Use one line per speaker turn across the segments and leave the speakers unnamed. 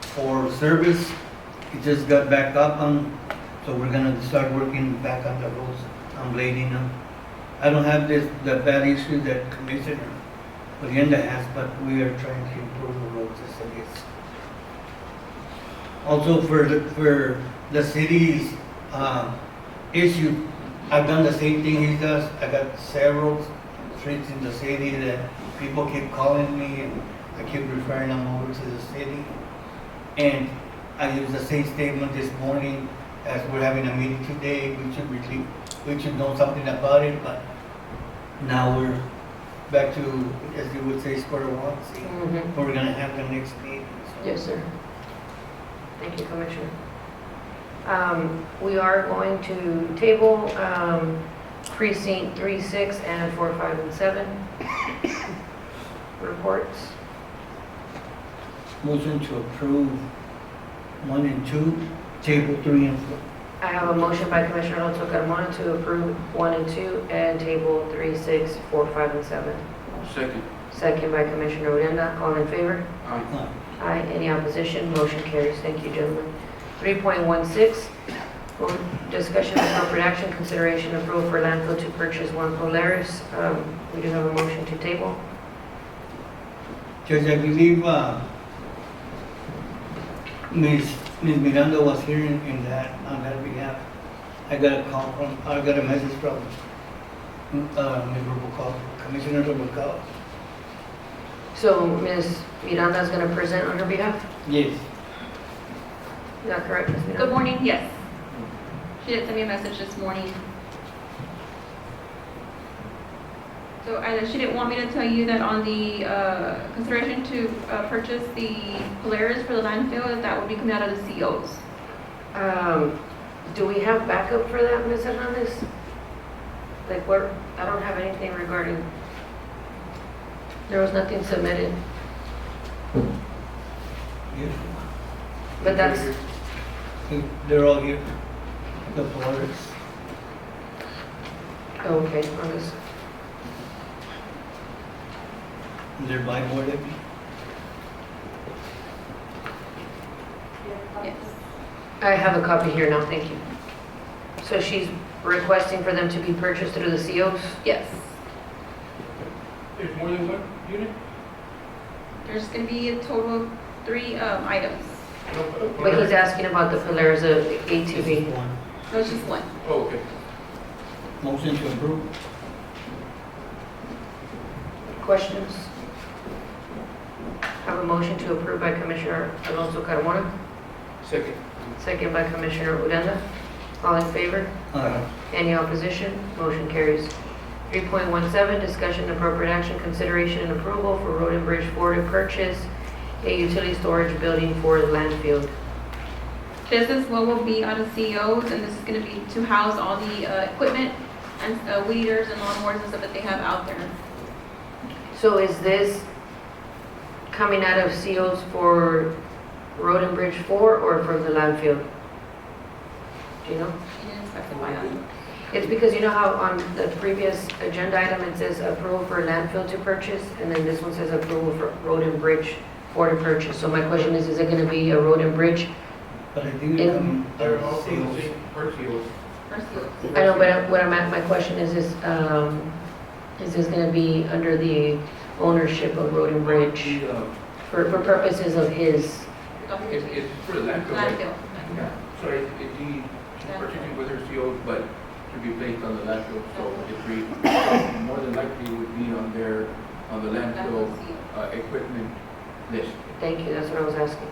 for service. It just got back up on, so we're gonna start working back on the roads, on blading them. I don't have this, the bad issue that Commissioner Odena has, but we are trying to improve the roads as it is. Also for, the- for the city's, uh, issue, I've done the same thing he does. I got several streets in the city that people keep calling me and I keep referring them over to the city. And I used the same statement this morning as we're having a meeting today. We should really, we should know something about it, but now we're back to, as you would say, square one. See,
Mhm.
we're gonna have the next meeting. so.
Yes, sir. Thank you, Commissioner. Um, We are going to table um, precinct 3, 6, and 4, 5, and 7 reports.
Motion to approve one and two, table three and four.
I have a motion by Commissioner Alonso Carmona to approve 1 and 2 and table 3, 6, 4, 5, and 7.
Second.
Second by Commissioner Odena. All in favor?
Aye.
Uh,
Aye. Any opposition? Motion carries. Thank you, gentlemen. 3.16, vote- discussion of appropriate action, consideration approval for landfill to purchase one Polaris. Um, We do have a motion to table.
Judge, I believe, uh, Ms. Ms. Miranda was here in, in that, on that behalf. I got a call from, I got a message from, uh, Ms. Rubalcaba, Commissioner Rubalcaba.
So Ms. Miranda is going to present on her behalf.
Yes.
Is that correct, Ms. Miranda?
Good morning, yes. She did send me a message this morning. So I, she didn't want me to tell you that on the uh, consideration to uh, purchase the Polaris for the landfill, that that would be coming out of the COs.
Um, Do we have backup for that, Ms. Hernandez? Like, where, I don't have anything regarding, there was nothing submitted,
Yes.
but that's,
They're all here, the Polaris.
okay, on this.
They're by board, I think.
Yes.
I have a copy here now, thank you. So she's requesting for them to be purchased through the COs?
Yes.
There's more than one unit?
There's going to be a total of three um, items.
uh,
But he's asking about the Polaris uh, ATV.
One.
No, it's just one.
Oh, okay.
Motion to approve.
Questions? Have a motion to approve by Commissioner Alonso Carmona,
Second.
second by Commissioner Odena. All in favor?
Uh,
Any opposition? Motion carries. 3.17, discussion and appropriate action, consideration and approval for Road and Bridge Board to purchase a utility storage building for the landfill.
This is what will be out of COs, and this is going to be to house all the uh, equipment and uh, weed eaters and lawnmowers and stuff that they have out there.
So is this coming out of COs for Road and Bridge 4 or from the landfill? Do you know?
She didn't specify on.
It's because you know how on the previous agenda item, it says approval for landfill to purchase, and then this one says approval for Road and Bridge 4 to purchase. So my question is, is it going to be a Road and Bridge?
But I um, think they're
In-
coming.
They're all in the
sales.
same person.
Or seal.
I know, but what I'm at, my question is, is, um, is this going to be under the ownership of Road and Bridge
The, uh,
for, for purposes of his?
It, it's for the landfill. right?
Landfill.
Yeah. So it, it need, particularly with her CO, but to be placed on the landfill, so if we, more than likely would be on their, on the landfill,
Landfill seal.
uh, equipment list.
Thank you, that's what I was asking.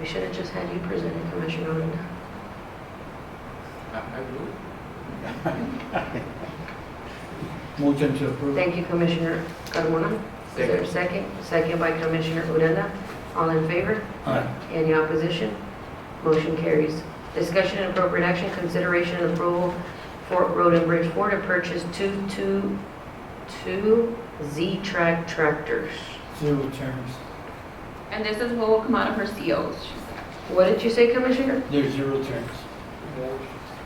We should have just had you present it, Commissioner Odena.
I, I would.
Motion to approve.
Thank you, Commissioner Carmona. Is there a second? Second by Commissioner Odena. All in favor?
Aye.
Any opposition? Motion carries. Discussion and appropriate action, consideration and approval for Road and Bridge Four to purchase two, two, two Z-Track tractors.
Zero terms.
And this is what will come out of her E COs.
What did you say, Commissioner?
There's zero terms.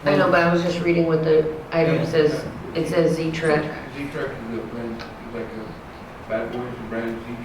I know, but I was just reading what the item
Yeah.
says. It says Z-Track.
Z-Track is a brand, like a Bad Boys brand, Z-Track